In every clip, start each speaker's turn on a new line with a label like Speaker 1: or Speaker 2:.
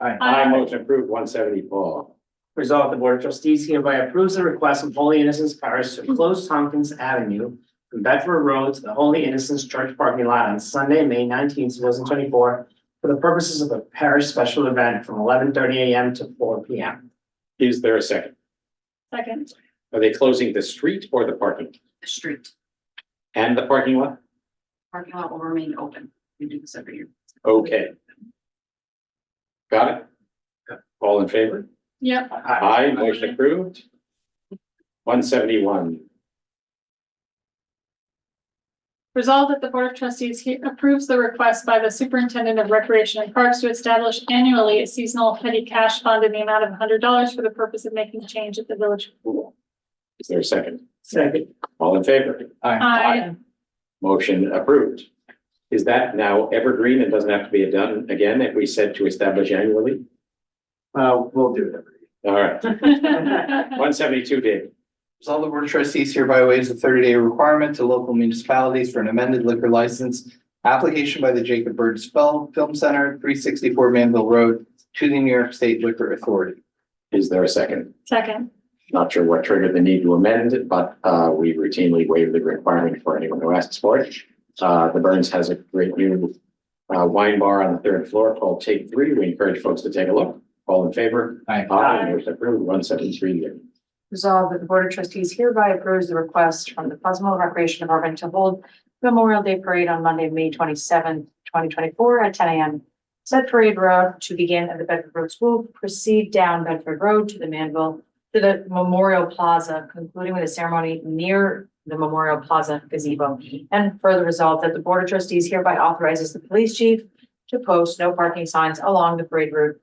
Speaker 1: Aye.
Speaker 2: I motion approved one seventy-four.
Speaker 3: Resolved, the Board of Trustees hereby approves the request of Holy Innocents Parish to close Tompkins Avenue from Bedford Road to the Holy Innocents Church parking lot on Sunday, May nineteenth, two thousand twenty-four for the purposes of a parish special event from eleven thirty AM to four PM.
Speaker 2: Is there a second?
Speaker 1: Second.
Speaker 2: Are they closing the street or the parking
Speaker 4: the street.
Speaker 2: and the parking lot?
Speaker 4: Parking lot will remain open. We do this every year.
Speaker 2: Okay. Got it? All in favor?
Speaker 1: Yep.
Speaker 3: Aye.
Speaker 2: Aye, motion approved. One seventy-one.
Speaker 1: Resolved that the Board of Trustees he- approves the request by the Superintendent of Recreation and Parks to establish annually a seasonal petty cash fund in the amount of hundred dollars for the purpose of making change at the village pool.
Speaker 2: Is there a second?
Speaker 3: Second.
Speaker 2: All in favor?
Speaker 1: Aye.
Speaker 2: Motion approved. Is that now evergreen and doesn't have to be done again if we said to establish annually?
Speaker 5: Uh, we'll do it every year.
Speaker 2: All right,
Speaker 1: Uh-huh.
Speaker 2: one seventy-two, David.
Speaker 5: Resolve the board of trustees hereby waives the thirty day requirement to local municipalities for an amended liquor license application by the Jacob Bird Spell Film Center, three sixty four Manville Road, to the New York State Liquor Authority.
Speaker 2: Is there a second?
Speaker 1: Second.
Speaker 2: Not sure what triggered the need to amend it, but uh, we routinely waive the requirement for anyone who asks for it. Uh, the Burns has a great new uh, wine bar on the third floor called Take Three. We encourage folks to take a look. All in favor?
Speaker 5: Aye.
Speaker 2: Aye, motion approved, one seventy-three, David.
Speaker 4: Resolved that the Board of Trustees hereby approves the request from the Pleasantville Recreation Department to hold Memorial Day Parade on Monday, May twenty seventh, twenty twenty four at ten AM. Said parade route to begin at the Bedford Road School, proceed down Bedford Road to the Manville, to the Memorial Plaza, concluding with a ceremony near the Memorial Plaza gazebo. And further resolved that the Board of Trustees hereby authorizes the police chief to post no parking signs along the parade route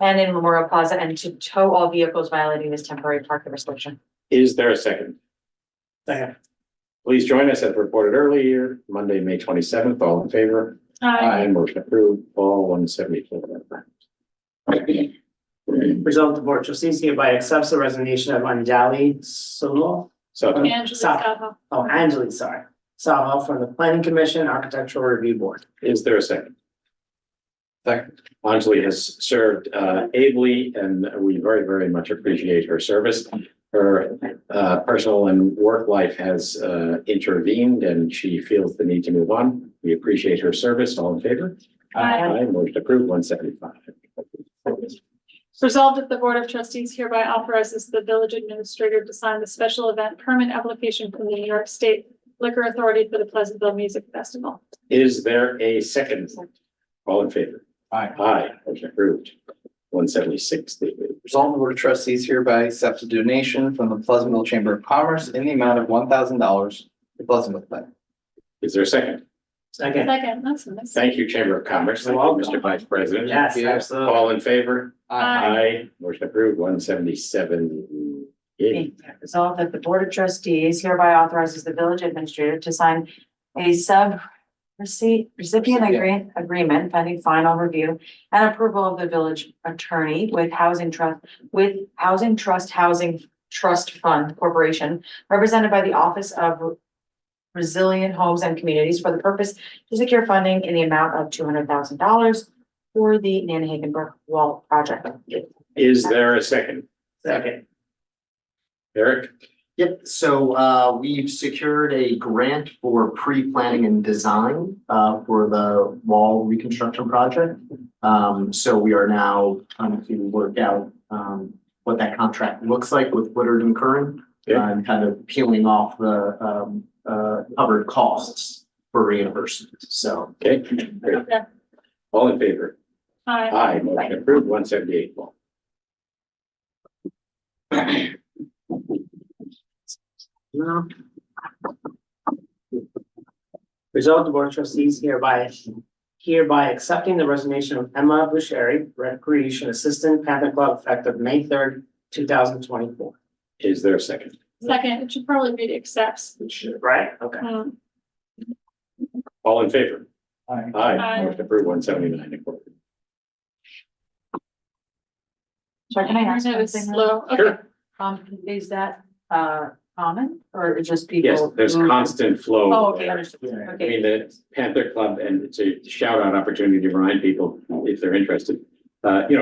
Speaker 4: and in Memorial Plaza and to tow all vehicles violating this temporary parking restriction.
Speaker 2: Is there a second?
Speaker 3: Second.
Speaker 2: Please join us as reported earlier, Monday, May twenty-seventh. All in favor? I Motion approved, all one seventy-four.
Speaker 3: Resolved, the Board of Trustees hereby accepts the resignation of Anjali Solo
Speaker 2: So
Speaker 1: Angela
Speaker 3: Stop.
Speaker 1: Stahoff.
Speaker 3: Oh, Angeli, sorry. Salvo from the Planning Commission Architectural Review Board.
Speaker 2: is there a second?
Speaker 5: Second.
Speaker 2: Anjali has served uh, ably and we very, very much appreciate her service. Her uh, personal and work life has uh, intervened and she feels the need to move on. We appreciate her service. All in favor?
Speaker 1: Aye.
Speaker 2: Motion approved, one seventy-five.
Speaker 1: Resolved that the Board of Trustees hereby authorizes the village administrator to sign the special event permit application from the New York State Liquor Authority for the Pleasantville Music Festival.
Speaker 2: Is there a second? All in favor?
Speaker 5: Aye.
Speaker 2: Aye, motion approved. One seventy-six, David.
Speaker 5: Resolve the board of trustees hereby accepts a donation from the Pleasantville Chamber of Commerce in the amount of one thousand dollars to Pleasantville Plan.
Speaker 2: Is there a second?
Speaker 3: Second,
Speaker 1: Second, that's nice.
Speaker 2: Thank you, Chamber of Commerce. Thank you, Mr. Vice President.
Speaker 3: yes,
Speaker 5: Yeah.
Speaker 3: absolutely.
Speaker 2: All in favor?
Speaker 1: Aye.
Speaker 2: Aye, motion approved, one seventy-seven.
Speaker 4: Resolved that the Board of Trustees hereby authorizes the village administrator to sign a sub receipt recipient agree- agreement pending final review and approval of the village attorney with Housing Trust, with Housing Trust Housing Trust Fund Corporation, represented by the Office of Resilient Homes and Communities for the purpose to secure funding in the amount of two hundred thousand dollars for the Nanahagan Brook Wall Project.
Speaker 2: Is there a second?
Speaker 3: Second,
Speaker 2: Eric,
Speaker 6: Yep, so uh we've secured a grant for pre-planning and design uh for the wall reconstruction project. Um so we are now trying to work out um what that contract looks like with Woodard and Curran. uh,
Speaker 2: Okay.
Speaker 6: And kind of peeling off the um uh covered costs for reimbursement, so.
Speaker 2: okay, great.
Speaker 1: Okay.
Speaker 2: all in favor?
Speaker 1: Aye.
Speaker 2: Aye, motion approved, one seventy-eight.
Speaker 3: Result, the Board of Trustees hereby, hereby accepting the resignation of Emma Bushari, Recreation Assistant, Panther Club, effective May third, two thousand twenty-four.
Speaker 2: Is there a second?
Speaker 1: Second, it should probably be accepts.
Speaker 3: Right? Okay.
Speaker 1: Um,
Speaker 2: All in favor?
Speaker 5: Aye.
Speaker 2: Aye,
Speaker 1: Aye.
Speaker 2: motion approved, one seventy-nine.
Speaker 4: Sorry, can I ask
Speaker 1: That was
Speaker 4: something?
Speaker 1: slow. Okay.
Speaker 2: Sure,
Speaker 4: Um, is that, uh, common or is just people?
Speaker 2: yes, there's
Speaker 4: who-
Speaker 2: constant flow.
Speaker 4: Oh, okay, understood.
Speaker 3: Yeah.
Speaker 2: I mean,
Speaker 4: Okay,
Speaker 2: the Panther Club, and it's a shout out opportunity to remind people, if they're interested, uh, you know,